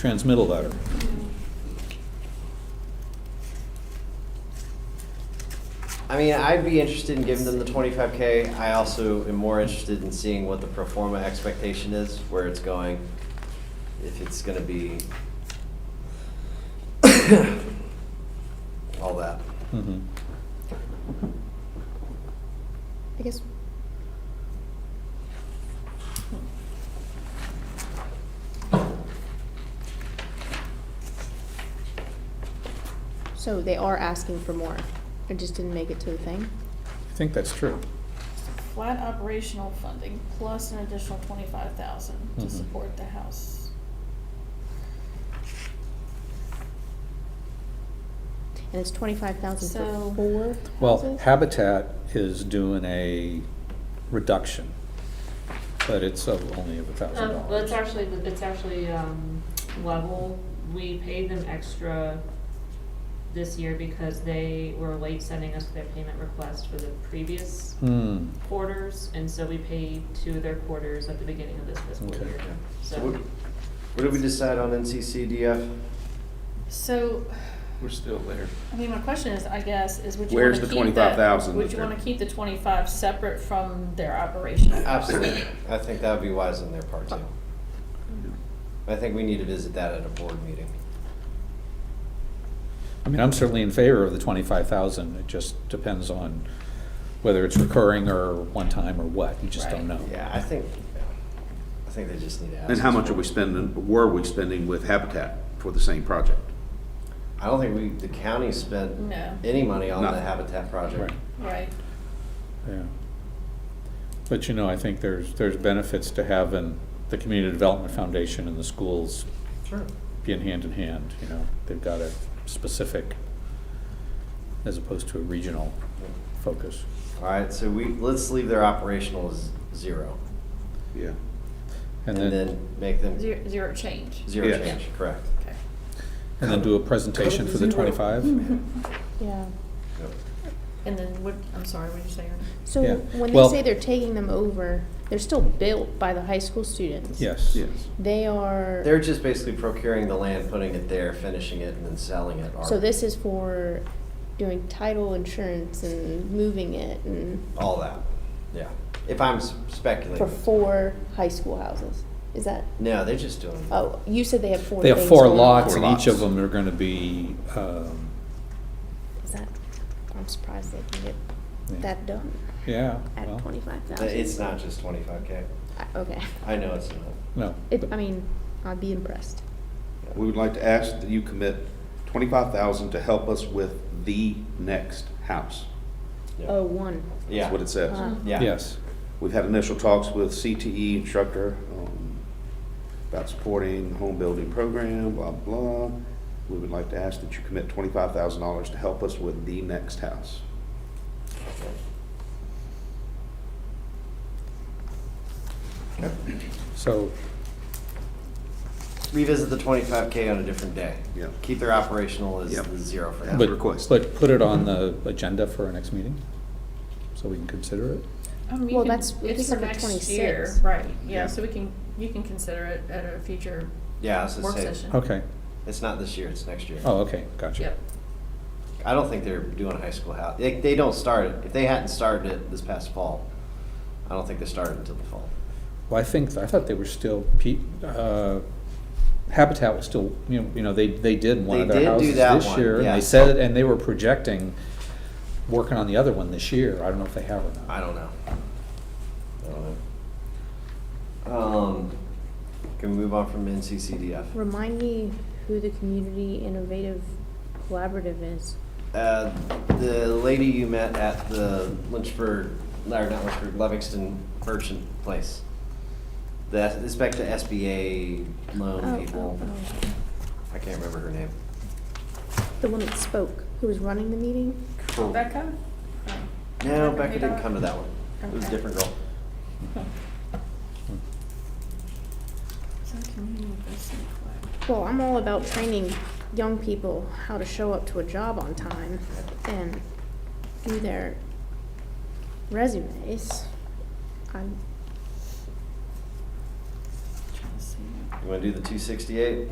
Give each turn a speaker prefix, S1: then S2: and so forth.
S1: transmittal letter.
S2: I mean, I'd be interested in giving them the twenty-five K. I also am more interested in seeing what the pro forma expectation is, where it's going. If it's gonna be all that.
S1: Mhm.
S3: I guess. So they are asking for more. It just didn't make it to the thing.
S1: I think that's true.
S4: Flat operational funding plus an additional twenty-five thousand to
S1: Mhm.
S4: support the house.
S3: And it's twenty-five thousand
S4: So-
S3: for four
S1: Well,
S3: houses?
S1: Habitat is doing a reduction, but it's of only of a thousand
S5: Um, well,
S1: dollars.
S5: it's actually, it's actually, um, level, we paid them extra this year because they were late sending us their payment request for the previous
S1: Hmm,
S5: quarters, and so we paid two of their quarters at the beginning of this fiscal
S1: Okay.
S5: year,
S2: So
S5: so.
S2: what, what did we decide on NCCDF?
S4: So,
S6: We're still there.
S4: I mean, my question is, I guess, is would you wanna
S6: Where's
S4: keep that?
S6: the 25,000
S4: Would
S6: that
S4: you
S6: they're-
S4: wanna keep the twenty-five separate from their operational?
S2: Absolutely. I think that would be wise on their part too. I think we need to visit that at a board meeting.
S1: I mean, I'm certainly in favor of the twenty-five thousand, it just depends on whether it's recurring or one-time or what, you just don't
S4: Right.
S1: know.
S2: Yeah, I think, I think they just need to ask.
S6: And how
S2: us
S6: much are
S2: more.
S6: we spending, were we spending with Habitat for the same project?
S2: I don't think we, the county spent
S4: No,
S2: any money on the
S6: Nothing.
S2: Habitat project.
S1: Right,
S4: right,
S1: yeah. But you know, I think there's, there's benefits to having the Community Development Foundation and the schools
S2: Sure.
S1: being hand in hand, you know, they've got a specific as opposed to a regional focus.
S2: All right, so we, let's leave their operational as zero
S6: Yeah.
S1: And
S2: and
S1: then,
S2: then make them
S4: zero, zero change,
S2: zero
S6: Yeah.
S2: change, correct?
S4: okay.
S1: and then do a presentation for the twenty-five?
S3: Yeah.
S2: Yep.
S4: And then what, I'm sorry, what did you say, Ernie?
S3: So
S1: Yeah.
S3: when they
S1: Well-
S3: say they're taking them over, they're still built by the high school students.
S1: Yes.
S6: Yes.
S3: They are.
S2: They're just basically procuring the land, putting it there, finishing it, and then selling it. or-
S3: So this is for doing title insurance and moving it and
S2: All that, yeah. If I'm s-
S3: for
S2: speculating.
S3: four high school houses. Is that,
S2: No, they're just doing.
S3: oh, you said they have four
S1: They have
S3: things
S1: four
S3: going on.
S1: lots and each of them are gonna be, um,
S3: Is that, I'm surprised they can
S1: Yeah.
S3: get that done
S1: yeah,
S3: at
S1: well,
S3: twenty-five thousand.
S2: It's not just twenty-five K.
S3: Okay.
S2: I know it's not.
S1: no.
S3: It,
S1: but-
S3: I mean, I'd be impressed.
S6: We would like to ask that you commit twenty-five thousand to help us with the next house.
S2: Yeah.
S3: Oh, one.
S6: That's
S2: Yeah,
S6: what it says.
S3: Wow.
S2: yeah.
S1: Yes,
S6: We've had initial talks with CTE instructor um, about supporting the home building program, blah, blah. We would like to ask that you commit twenty-five thousand dollars to help us with the next house.
S1: so,
S2: Revisit the twenty-five K on a different day.
S6: Yeah.
S2: Keep their operational as
S6: Yeah.
S2: the zero for
S6: Yeah.
S2: now.
S1: but,
S6: request.
S1: but put it on the agenda for our next meeting, so we can consider it.
S4: I mean, Um, you
S3: Well,
S4: can-
S3: that's- we
S4: it's
S3: just
S4: for
S3: have a
S4: next year,
S3: 26.
S4: right,
S6: Yeah.
S4: yeah, so we can, you can consider it at a future
S2: Yeah, I was gonna
S4: work
S2: say,
S4: session.
S1: Okay,
S2: it's not this year, it's next year.
S1: oh, okay, gotcha.
S4: Yep.
S2: I don't think they're doing high school house. They, they don't start it. If they hadn't started it this past fall, I don't think they started until the fall.
S1: Well, I think, I thought they were still, pe- uh, Habitat was still, you know, you know, they, they did one of their
S2: They did do
S1: houses
S2: that
S1: this
S2: one,
S1: year. And
S2: yeah.
S1: they said, and they were projecting, working on the other one this year. I don't know if they have or not.
S2: I don't know. I don't know. Um, can we move on from NCCDF?
S3: Remind me who the Community Innovative Collaborative is.
S2: Uh, the lady you met at the Lynchburg, or not Lynchburg, Livingston Merchant Place. The, it's back to SBA
S3: Oh,
S2: loan people.
S3: oh, oh.
S2: I can't remember her name.
S3: The one that spoke, who was running the meeting?
S4: Becca?
S2: No,
S4: Becca
S2: Becca didn't
S4: Haydock?
S2: come to that one. It was a
S4: Okay.
S2: different girl.
S4: Is that community investment plan?
S3: Well, I'm all about training young people how to show up to a job on time and do their resumes. I'm,
S4: Trying to see.
S2: You wanna do the two sixty-eight?